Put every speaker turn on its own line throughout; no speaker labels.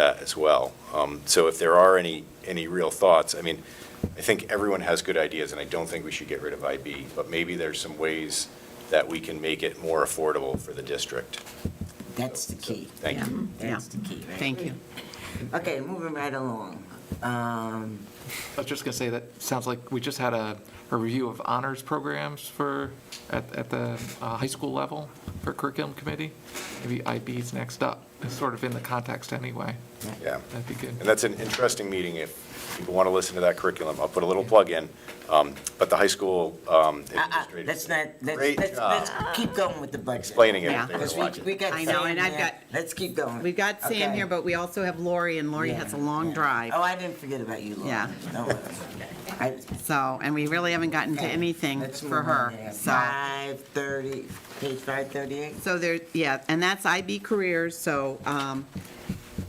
that as well. Um, So if there are any, any real thoughts, I mean, I think everyone has good ideas, and I don't think we should get rid of IB, but maybe there's some ways that we can make it more affordable for the district.
That's the key.
Thank you.
Yeah, That's the key, right?
Thank you.
Okay, moving right along. Um,
I was just going to say, that sounds like we just had a, a review of honors programs for, at, at the uh, high school level for curriculum committee. Maybe IB's next up, It's sort of in the context anyway.
Yeah.
That'd be good.
And that's an interesting meeting if people want to listen to that curriculum. I'll put a little plug in, um, but the high school um,
uh-uh,
administrators.
Let's not, let's,
Great
let's,
job
let's keep going with the budget.
explaining it
Yeah.
if they were
Because we,
watching.
we got
I know,
Sam
and I've
here.
got-
Let's keep going.
We've got Sam
Okay.
here, but we also have Lori, and Lori has a
Yeah,
long
yeah.
drive.
Oh, I didn't forget about you, Laura.
Yeah.
Don't worry. I-
So, and we really haven't gotten to
okay,
anything
let's
for
move on
her,
there.
so.
530, page 538?
So there, yeah, and that's IB Careers, so um,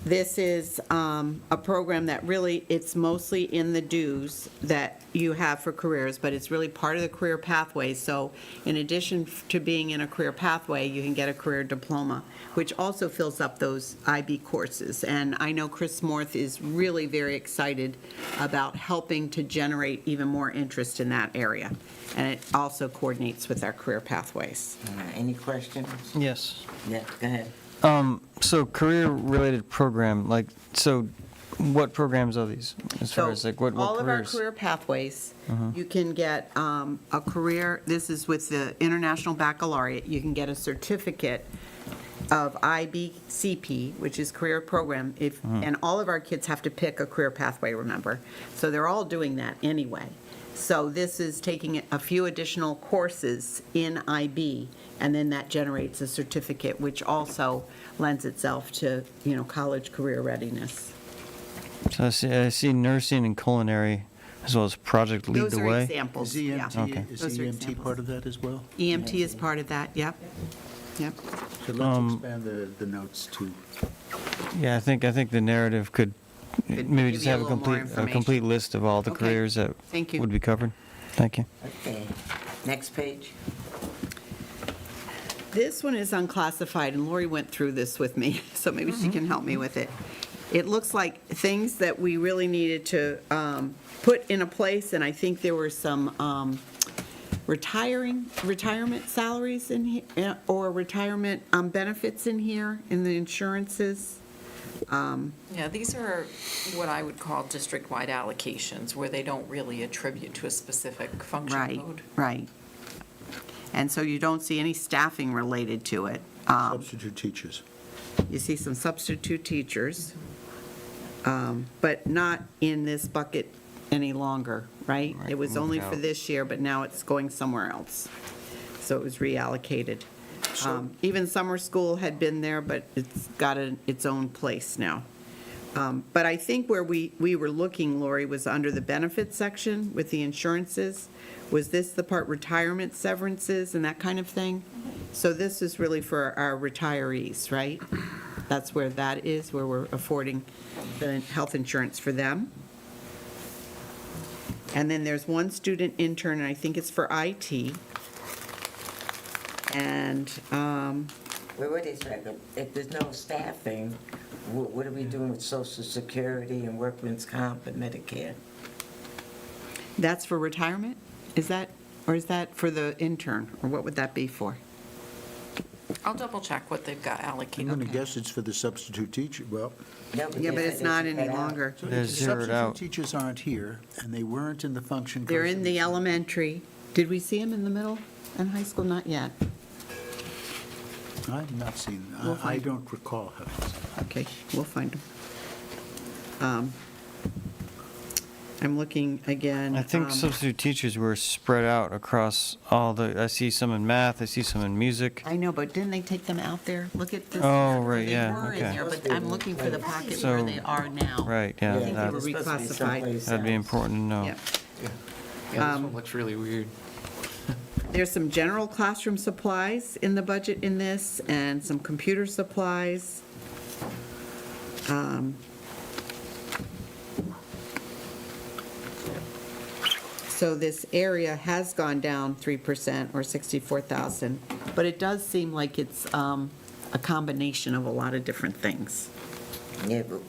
this is um, a program that really, it's mostly in the dues that you have for careers, but it's really part of the career pathway. So in addition to being in a career pathway, you can get a career diploma, which also fills up those IB courses. And I know Chris Morth is really very excited about helping to generate even more interest in that area. And it also coordinates with our career pathways.
All right, Any questions?
Yes.
Yeah, go ahead.
Um, so career-related program, like, so what programs are these? As far
So
as like what, what
All of our
careers? Uh-huh.
career pathways, you can get um, a career, this is with the International Baccalaureate, you can get a certificate of IBCP, which is career program, if,
Uh-huh.
and all of our kids have to pick a career pathway, remember? So they're all doing that anyway. So this is taking a few additional courses in IB, and then that generates a certificate, which also lends itself to, you know, college career readiness.
So I see, I see nursing and culinary, as well as Project Lead
Those
the
are
Way.
examples,
Is
yeah.
Okay.
EMT, is
Those are
EMT
examples.
part of that as well?
EMT E is part of that, yep, yep.
So let's
Um,
expand the, the notes to,
Yeah, I think, I think the narrative could
Could
maybe
give
just
you a
have a
little more
complete, a
information.
complete list of all the
Okay.
careers that
Thank you.
would be covered. Thank you.
Okay, next page.
This one is unclassified, and Lori went through this with me, so maybe she can help me with it. It looks like things that we really needed to um, put in a place, and I think there were some um, retiring, retirement salaries in, here, or retirement um, benefits in here, in the insurances.
Yeah, these are what I would call district-wide allocations, where they don't really attribute to a specific function
Right,
code.
right. And so you don't see any staffing related to it. Um,
substitute teachers.
You see some substitute teachers, um, but not in this bucket any longer, right? It was only for this year, but now it's going somewhere else. So it was reallocated. Um, Even summer school had been there, but it's got an- its own place now. Um, But I think where we, we were looking, Lori, was under the benefits section with the insurances. Was this the part retirement severances and that kind of thing? So this is really for our retirees, right? That's where that is, where we're affording the health insurance for them. And then there's one student intern, and I think it's for IT. And, um,
Wait, wait a second. If there's no staffing, wha- what are we doing with social security and workman's comp and Medicare?
That's for retirement? Is that, or is that for the intern? Or what would that be for?
I'll double-check what they've got
I'm
allocated.
going to guess it's for the substitute teacher, well.
No,
Yeah, but
they-
it's
they
not
took
any
that out.
longer.
so
They're
if the
zeroed out.
Substitute teachers aren't here, and they weren't in the function.
They're in the
codes.
elementary. Did we see them in the middle and high school? Not yet.
I've not seen, I-
We'll
I
find-
don't recall how.
Okay, we'll find them. Um, I'm looking again.
I think
um,
substitute teachers were spread out across all the, I see some in math, I see some in music.
I know, but didn't they take them out there? Look at this.
Oh, right, yeah,
They were in
okay.
there, but I'm looking for the pocket where
So-
they are now.
Right,
I
yeah, Oh.
think they
that-
were supposed to
that-
be
Reclassified.
someplace
that'd be
else.
important to know.
Yep.
Yeah, this
Um,
one looks really weird.
There's some general classroom supplies in the budget in this, and some computer supplies. Um, So this area has gone down 3% or 64,000, but it does seem like it's um, a combination of a lot of different things.
Yeah, but